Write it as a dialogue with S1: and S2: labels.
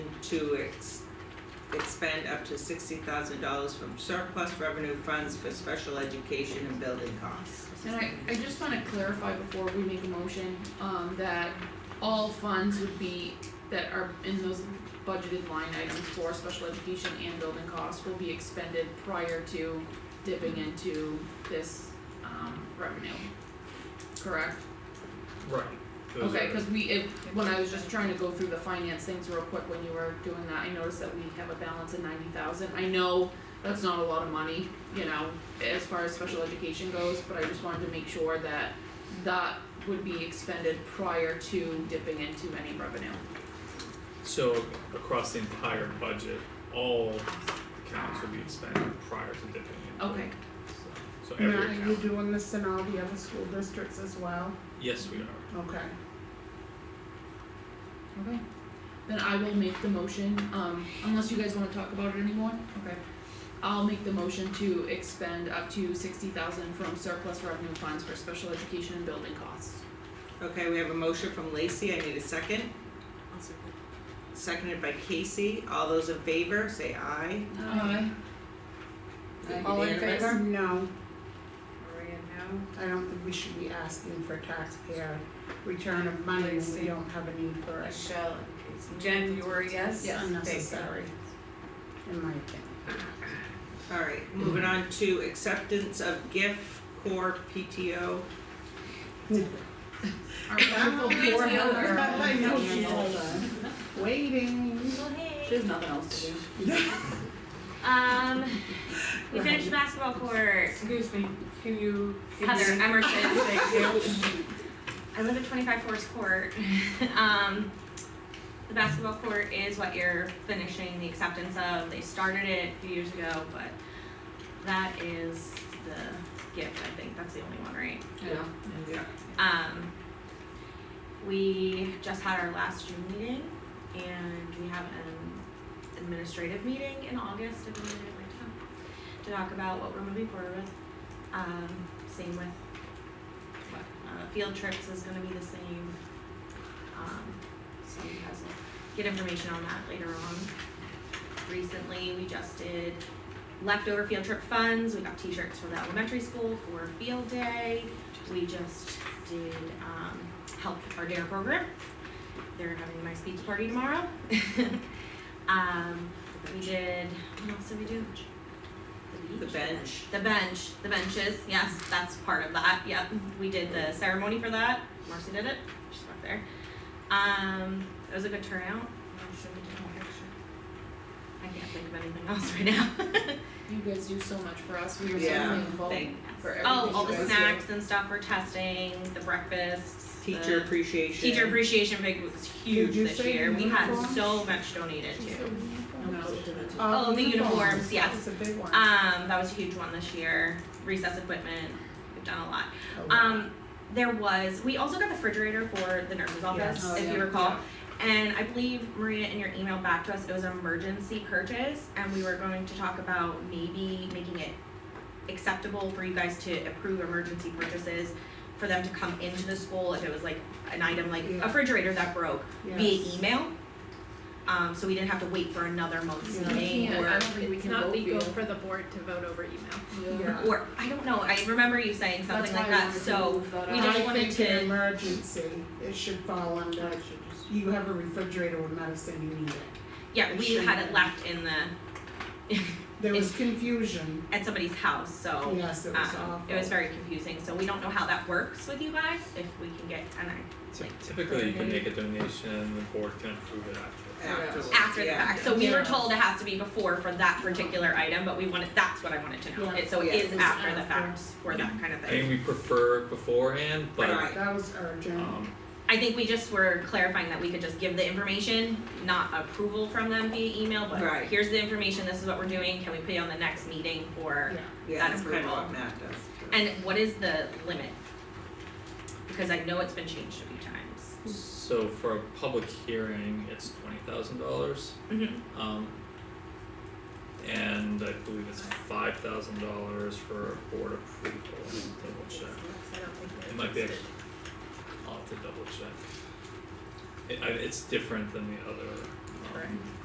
S1: to ex- expend up to sixty thousand dollars from surplus revenue funds for special education and building costs.
S2: And I, I just wanna clarify before we make a motion, um, that all funds would be, that are in those budgeted line items for special education and building costs will be expended prior to dipping into this, um, revenue. Correct?
S3: Right. Those
S2: Okay,
S3: are-
S2: cause we, it, when I was just trying to go through the finance things real quick when you were doing that, I noticed that we have a balance of ninety thousand, I know that's not a lot of money, you know, as far as special education goes, but I just wanted to make sure that that would be expended prior to dipping into any revenue.
S3: So across the entire budget, all accounts will be expended prior to dipping in.
S2: Okay,
S3: So- So
S4: Matt,
S3: every
S4: are you
S3: account,
S4: doing this in all the other school districts as well?
S3: yes, we are.
S4: Okay.
S2: okay, then I will make the motion, um, unless you guys wanna talk about it anymore, okay. I'll make the motion to expend up to sixty thousand from surplus revenue funds for special education and building costs.
S1: Okay, we have a motion from Lacey, I need a second, seconded by Casey, all those in favor, say aye.
S2: Aye.
S5: All in
S1: Unanimous?
S5: favor?
S4: No,
S5: Maria, no?
S4: I don't think we should be asking for taxpayer return of money when we don't have a need for it.
S5: Michelle and Casey. Jen, you were a yes?
S4: It's
S5: Thank you.
S4: unnecessary, in my opinion.
S1: Alright, moving on to acceptance of gift core PTO.
S2: Our wonderful
S4: Poor
S2: PTO
S4: Heather.
S2: girl.
S4: Oh, I know she's hold on. waiting.
S2: She has nothing else to do.
S6: Um, we finished basketball court.
S5: Excuse me, can you give me?
S6: Heather Emerson.
S5: Thank you.
S6: I live at 25 Forest Court. um, the basketball court is what you're finishing the acceptance of. They started it a few years ago, but that is the gift. I think that's the only one, right?
S2: Yeah.
S1: Yeah.
S6: Um, we just had our last June meeting and we have an administrative meeting in August if anyone would like to come to talk about what we're moving forward with. Um, same with what, uh, field trips is gonna be the same. Um, so you guys will get information on that later on. Recently, we just did leftover field trip funds. We got t-shirts for the elementary school for field day. We just did um, help our dare program. They're having my speech party tomorrow. um, we did. What else did we do? The
S1: The
S6: beach.
S1: bench,
S6: The bench, the benches, yes, that's part of that, yep, we did the ceremony for that, Marcy did it, she's up there. Um, it was a good turnout, I'm sure we did a picture. I can't think of anything else right now.
S2: You guys do so much for us. We are so
S1: Yeah,
S2: thankful.
S1: thank,
S2: For
S6: Oh,
S2: everything you
S6: all the
S2: guys
S6: snacks and stuff for testing, the breakfasts, the
S1: teacher appreciation.
S6: teacher appreciation big was huge
S4: Did you
S6: this
S4: say
S6: year, we had
S4: uniforms?
S6: so much donated too.
S4: Uh,
S6: Oh, the uniforms, yes.
S4: It's a big one.
S6: Um, that was a huge one this year, recess equipment, we've done a lot.
S4: Oh, wow.
S6: Um, there was, we also got the refrigerator for the nurse's office,
S4: Yes. Oh,
S6: if
S4: yeah.
S6: you recall. And I believe Maria, in your email back to us, it was an emergency purchase, and we were going to talk about maybe making it acceptable for you guys to approve emergency purchases for them to come into the school if it was like an item like
S4: Yeah.
S6: a refrigerator that broke
S4: Yes.
S6: via email. Um, so we didn't have to wait for another month's
S4: Yeah.
S2: We
S6: meeting
S2: can't,
S6: or
S2: I don't think we can vote for you.
S7: for the board to vote over email.
S4: Yeah.
S6: or I don't know, I remember you saying something like that,
S2: That's why I wanted to
S6: so
S2: move that
S6: we
S2: up.
S6: just
S4: I
S6: wanted
S4: think in
S6: to-
S4: emergency, it should fall under, you have a refrigerator with medicine, you need it.
S6: yeah,
S4: It
S6: we
S4: should
S6: had
S4: be.
S6: it left in the
S4: There was confusion,
S6: at somebody's house, so
S4: yes, it was
S6: um,
S4: awful.
S6: it was very confusing, so we don't know how that works with you guys, if we can get, and I,
S3: Ty- Typically, you can make a donation and the board can approve it after.
S1: Afterwards,
S6: after the
S1: yeah.
S6: fact, so we were
S4: Yeah.
S6: told it has to be before for that particular item, but we wanted, that's what I wanted to know,
S4: Yeah.
S6: it, so
S1: Yeah.
S6: it is
S4: It's
S6: after the
S4: after.
S6: fact for that kind of
S3: I
S6: thing.
S3: think we prefer beforehand, but
S1: Right.
S4: That was urgent.
S6: Oh.
S3: um
S6: I think we just were clarifying that we could just give the information, not approval from them via email, but
S1: Right.
S6: here's the information, this is what we're doing, can we put it on the next meeting for,
S4: Yeah.
S1: Yeah,
S6: That's
S1: that's kind of
S6: approval.
S1: what Matt does.
S6: and what is the limit? Because I know it's been changed a few times.
S3: so for a public hearing, it's twenty thousand dollars.
S6: Mm-hmm.
S3: Um and I believe it's five thousand dollars for board approval, double check. It might be, I'll have to double check. It I it's different than the other um
S6: Correct.